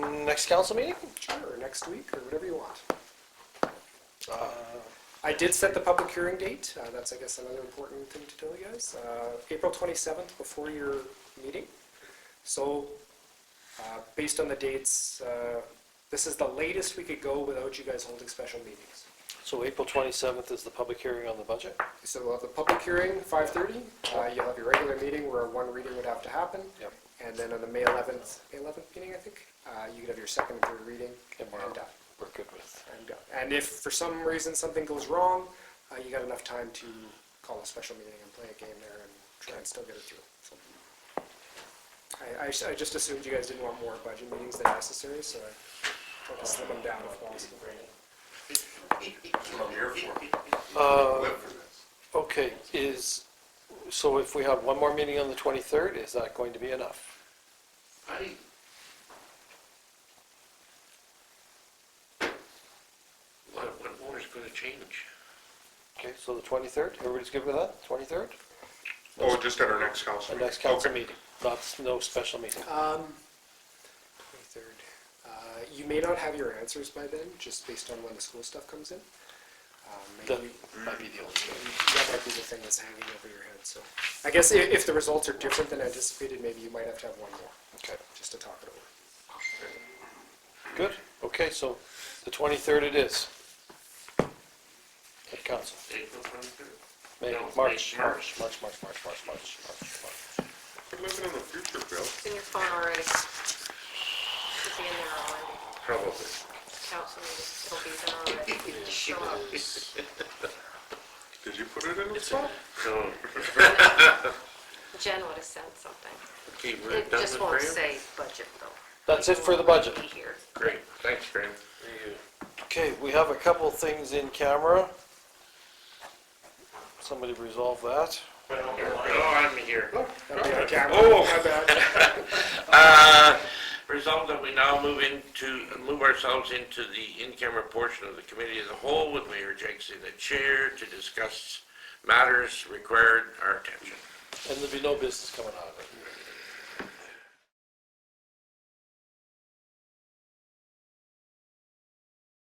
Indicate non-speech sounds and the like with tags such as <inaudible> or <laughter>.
next council meeting? Sure, or next week, or whatever you want. Uh, I did set the public hearing date, uh, that's, I guess, another important thing to tell you guys, Uh, April 27th before your meeting. So, uh, based on the dates, uh, this is the latest we could go without you guys holding special meetings. So April 27th is the public hearing on the budget? So we'll have the public hearing, 5:30, Uh, you'll have your regular meeting where one reading would have to happen. Yep. And then on the May 11th, May 11th meeting, I think, uh, you could have your second and third reading. And we're- done. We're good with. And done. And if for some reason something goes wrong, uh, you got enough time to call a special meeting and play a game there and try and still get it through. So I- I, s- I just assumed you guys didn't want more budget meetings than necessary, so I tried to slim them down if possible. I'm here for it. Uh, Live for this. Okay, is, so if we have one more meeting on the 23rd, is that going to be enough? I, What, what more is going to change? Okay, so the 23rd, everybody's good with that, 23rd? oh, just at our next council Our meeting. next council Okay. meeting, not, no special meeting. Um, 23rd. Uh, You may not have your answers by then, just based on when the school stuff comes in. Um, That Maybe might be the only. that might be the thing that's hanging over your head, so. I guess i- if the results are different than anticipated, maybe you might have to have one more, Okay, just to talk it over. good. Okay, so the 23rd it is. At council. April twenty-third? May, No, March, May, March, March, March. March, March, March, March, March. We're living in the future, Bill. It's in your phone already. Should be in there already. Probably. Council meeting, it'll be there already. Show up. Did you put it in the phone? No, Jen would have sent something. okay, we're It done just with won't Graham? say budget though. That's it for the budget. Be here. Great, Thanks, Graham. There you go. Okay, we have a couple things in camera. Somebody resolve that. Oh, I'm here. That'd <laughs> be on camera. Oh. My <laughs> bad. Uh, Resolved that we now move into, move ourselves into the in-camera portion of the committee as a whole with Mayor Jakes in the chair to discuss matters required our attention. And there'll be no business coming out of it.